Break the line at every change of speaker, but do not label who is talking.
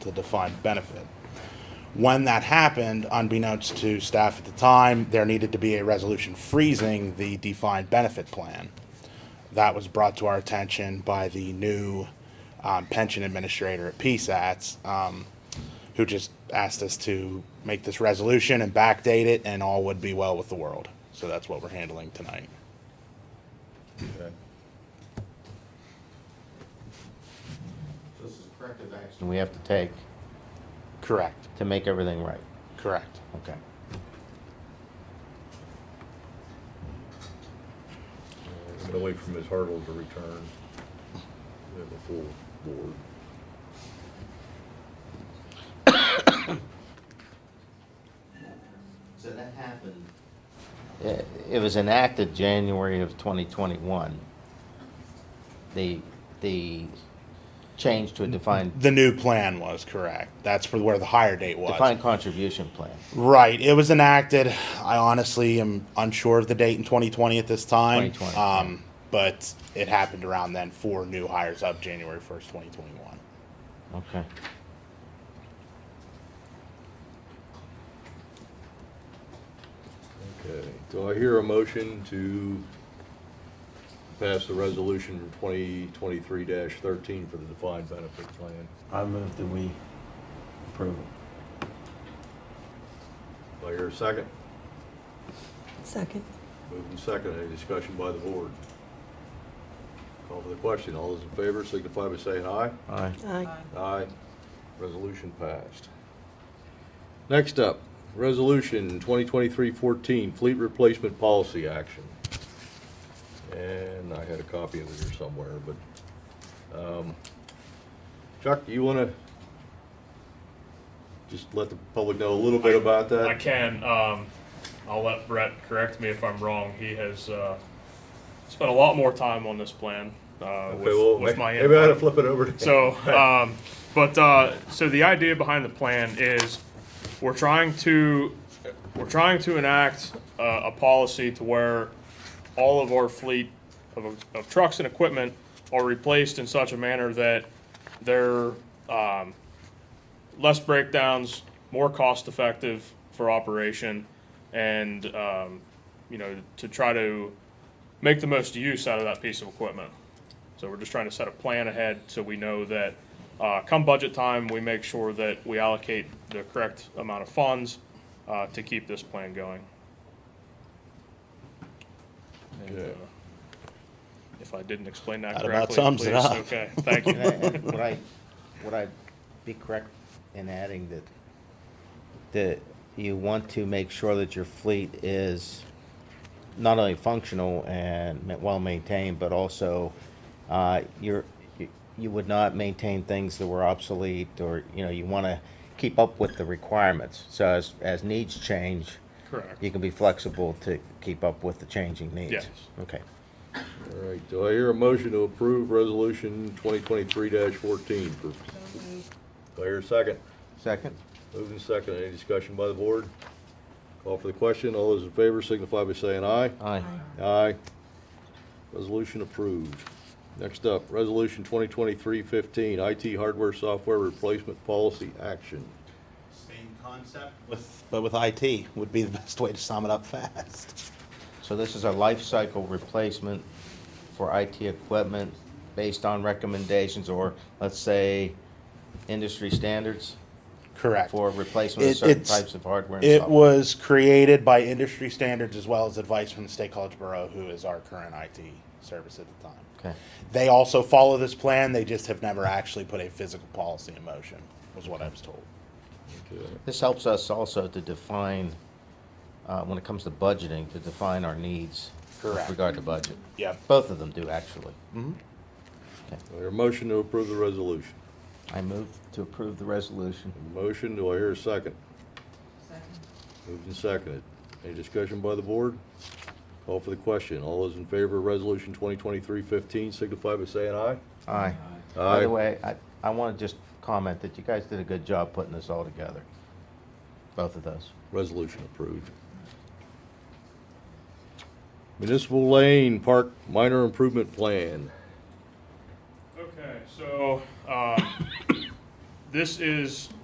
the defined benefit. When that happened, unbeknownst to staff at the time, there needed to be a resolution freezing the defined benefit plan. That was brought to our attention by the new um, pension administrator at PSATS, um, who just asked us to make this resolution and backdate it, and all would be well with the world. So that's what we're handling tonight.
This is corrective action we have to take
Correct.
to make everything right.
Correct.
Okay.
Get away from his hurdle to return. We have a full board.
So that happened,
It it was enacted January of 2021. The, the change to a defined,
The new plan was correct. That's for where the higher date was.
defined contribution plan.
Right. It was enacted. I honestly am unsure of the date in 2020 at this time.
2020,
Um, but it happened around then for new hires up January 1st, 2021.
Okay.
Okay, do I hear a motion to pass the resolution twenty twenty-three thirteen for the defined benefit plan?
I move that we approve it.
Do I hear a second?
Second.
Moving second, any discussion by the board? Call for the question, all those in favor signify by saying aye.
Aye.
Aye.
Aye. Resolution passed. Next up, Resolution 2023-14, Fleet Replacement Policy Action. And I had a copy of it here somewhere, but, um, Chuck, do you want to just let the public know a little bit about that?
I can. Um, I'll let Brett correct me if I'm wrong. He has uh, spent a lot more time on this plan uh,
Okay,
with,
well,
with
may-
my
Maybe I ought to
input.
flip it over to
So, um, but uh, so the idea behind the plan is we're trying to we're trying to enact uh, a policy to where all of our fleet of, of trucks and equipment are replaced in such a manner that they're um, less breakdowns, more cost effective for operation, and um, you know to try to make the most use out of that piece of equipment. So we're just trying to set a plan ahead so we know that, uh, come budget time, we make sure that we allocate the correct amount of funds, uh, to keep this plan going. And, uh,
Okay.
If I didn't explain that
That about
correctly,
sums
please,
it up.
okay, thank you.
Would I, would I be correct in adding that, that you want to make sure that your fleet is not only functional and ma- well-maintained, but also, uh, you're, you- you would not maintain things that were obsolete, or, you know, you want to keep up with the requirements. So as, as needs change,
Correct.
you can be flexible to keep up with the changing needs.
Yes.
Okay.
All right, do I hear a motion to approve Resolution 2023-14? for- Do I hear a second?
Second?
Moving second, any discussion by the board? Call for the question, all those in favor signify by saying aye.
Aye.
Aye. Resolution approved. Next up, Resolution 2023-15, IT Hardware Software Replacement Policy Action.
Same concept. With, but with IT would be the best way to sum it up fast.
So this is a life cycle replacement for IT equipment based on recommendations or, let's say, industry standards
Correct.
for replacement
It-
of certain
it's-
types of hardware and
It
software.
was created by industry standards as well as advice from the State College Borough, who is our current IT service at the time.
Okay.
They also follow this plan. They just have never actually put a physical policy in motion, was what I was told.
Okay.
This helps us also to define, uh, when it comes to budgeting, to define our needs with
Correct.
regard to budget.
Yep.
Both of them do, actually.
Do I hear a motion to approve the resolution?
I move to approve the resolution.
Motion, do I hear a second? Moved and seconded. Any discussion by the board? Call for the question. All those in favor of Resolution 2023-15 signify by saying aye.
Aye. By the way, I, I want to just comment that you guys did a good job putting this all together, both of those.
Resolution approved. Municipal Lane Park Minor Improvement Plan.
Okay, so, um, this is